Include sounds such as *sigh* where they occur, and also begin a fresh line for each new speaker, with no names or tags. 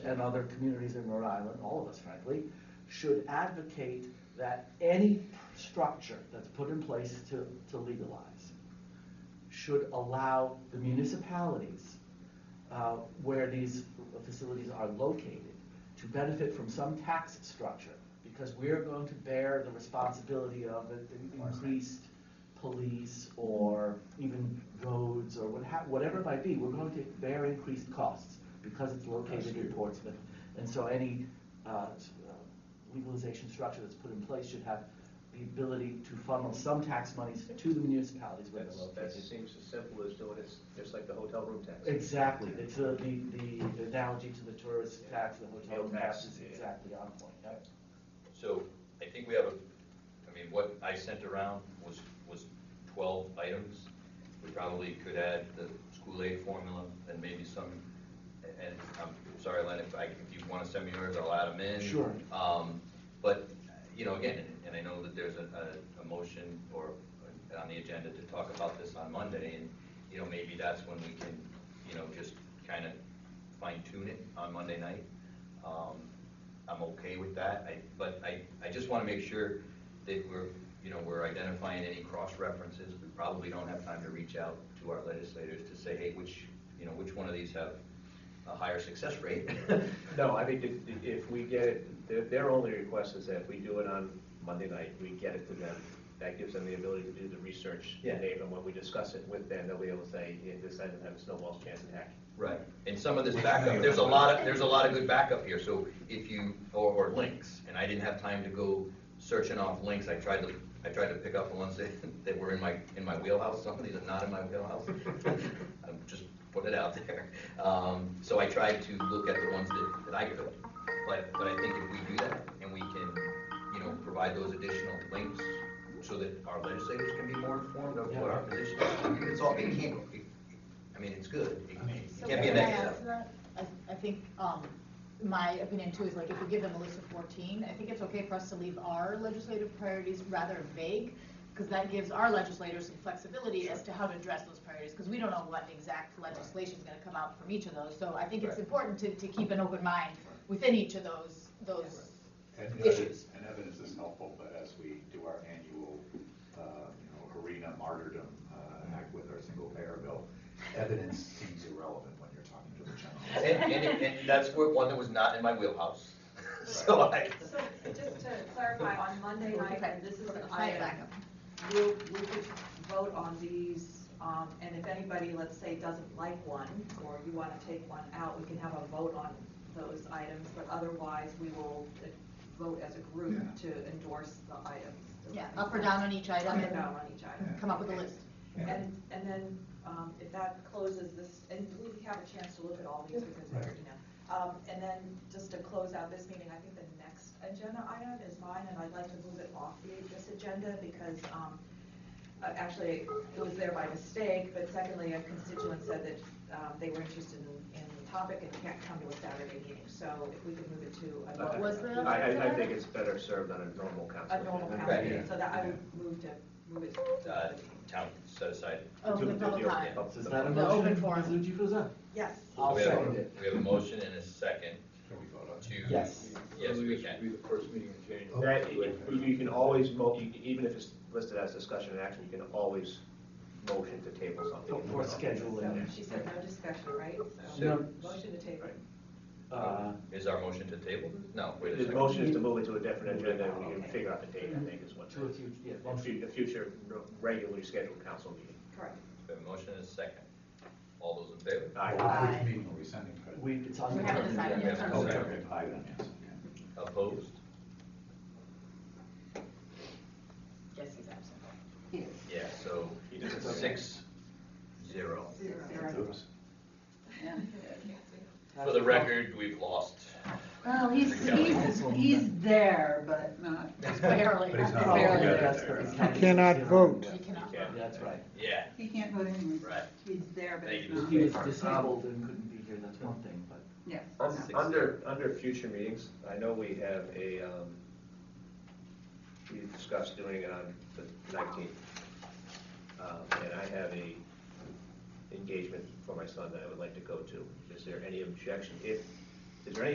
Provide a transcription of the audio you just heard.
and other communities in Rhode Island, all of us frankly, should advocate that any structure that's put in place to, to legalize should allow the municipalities uh, where these facilities are located to benefit from some tax structure, because we're going to bear the responsibility of an increased police or even roads or what ha- whatever it might be, we're going to bear increased costs because it's located in Portsmouth. And so any uh, s- uh, legalization structure that's put in place should have the ability to funnel some tax monies to the municipalities where they're located.
That's, that seems as simple as doing it, just like the hotel room tax.
Exactly, it's the, the, the analogy to the tourist tax, the hotel
Hotel
tax
tax,
is
yeah.
exactly on point, yep.
So I think we have a, I mean, what I sent around was, was twelve items. We probably could add the school aid formula and maybe some, and I'm sorry, Len, if I, if you want to send me yours, I'll add them in.
Sure.
Um, but, you know, again, and I know that there's a, a, a motion or on the agenda to talk about this on Monday, and, you know, maybe that's when we can, you know, just kind of fine tune it on Monday night. Um, I'm okay with that, I, but I, I just want to make sure that we're, you know, we're identifying any cross references. We probably don't have time to reach out to our legislators to say, hey, which, you know, which one of these have a higher success rate? *laughs*
No, I think if, if we get it, their, their only request is that if we do it on Monday night, we get it to them. That gives them the ability to do the research,
Yeah.
and even when we discuss it with them, they'll be able to say, yeah, this doesn't have a snowball's chance in heck.
Right, and some of this backup, there's a lot of, there's a lot of good backup here, so if you, or, or links, and I didn't have time to go searching off links, I tried to, I tried to pick up the ones *laughs* that, that were in my, in my wheelhouse, some of these are not in my wheelhouse. I'm just putting it out there, um, so I tried to look at the ones that, that I could, but, but I think if we do that, and we can, you know, provide those additional links, so that our legislators can be more informed of what our position is, it's all, it can't, it- I mean, it's good, It- it
So
it can't be a
can I
negative.
add to that? I, I think, um, my opinion too is like if we give them a list of fourteen, I think it's okay for us to leave our legislative priorities rather vague, because that gives our legislators some flexibility as to how to address those priorities, because we don't know what exact legislation is gonna come out from each of those, so I think it's
Right.
important to, to keep an open mind within each of those, those
And
Issues.
evidence, and evidence is helpful, but as we do our annual, uh, you know, arena martyrdom uh, act with our single payer bill, evidence seems irrelevant when you're talking to
*laughs*
the general.
And, and, and that's where- one that was not in my wheelhouse. *laughs* So I,
So just to clarify, on Monday night, and this is an item, we'll, we could vote on these, um, and if anybody, let's say, doesn't like one, or you want to take one out, we can have a vote on those items, but otherwise, we will uh, vote as a group
Yeah.
to endorse the items. Does
Yeah,
that make
up or
sense?
down on each item
Up or
and
down on each item.
come up with a list.
And, and then, um, if that closes this, and we have a chance to look at all these because we're, you know. Um, and then, just to close out this meeting, I think the next agenda item is mine, and I'd like to move it off the, this agenda because, um, uh, actually, it was there by mistake, but secondly, a constituent said that, um, they were interested in, in the topic and can't come to a Saturday meeting, so if we could move it to a.
What was the-
I, I, I think it's better served on a normal council.
A normal
agenda.
council
Right,
meeting,
yeah.
so that I would move to, move it to.
uh, town set aside.
Oh,
To-
the
to
public
deal with
time.
the-
Is that a
The
motion,
open
Ms.
forum.
Lucci Puzza?
Yes.
I'll
We have a-
second it.
We have a motion and a second
Can we vote on it?
to.
Yes.
Yes, we can.
Be the first meeting in January.
That, you can always mo, you can- even if it's listed as discussion and action, you can always motion to table something.
Or schedule
So
it.
She said no discussion, right? So,
No.
motion to table.
Right.
Uh,
Is our motion to table? No, wait a
The
second.
motion is to move it to a different agenda, and we can figure out the date, I think, is what.
To a future, yeah,
A
motion.
fu- a future regularly scheduled council meeting.
Correct.
We have a motion and a second. All those in favor?
I,
Aye.
Which meeting are we sending? Fred?
we, it's on the.
We haven't
agenda.
decided
yet.
Oh, okay, okay, aye then, yes, okay.
Opposed?
Jesse's absent.
Yeah, so
He doesn't.
six, zero.
Oops.
For the record, we've lost.
Well, he's, he's, he's there, but not,
Just barely.
But he's not
Just barely.
altogether.
That's the-
It's
that's the-
cannot
yeah.
vote.
You cannot.
Yeah.
That's right.
Yeah,
he can't go anywhere.
Right.
He's there, but
Thank
he's
you.
He
not.
was disabled and couldn't be here, that's one thing, but.
Yes.
un- Under, under future meetings, I know we have a, um, we discussed doing it on the nineteenth. Um, And I have a engagement for my son that I would like to go to. Is there any objection? If, is there any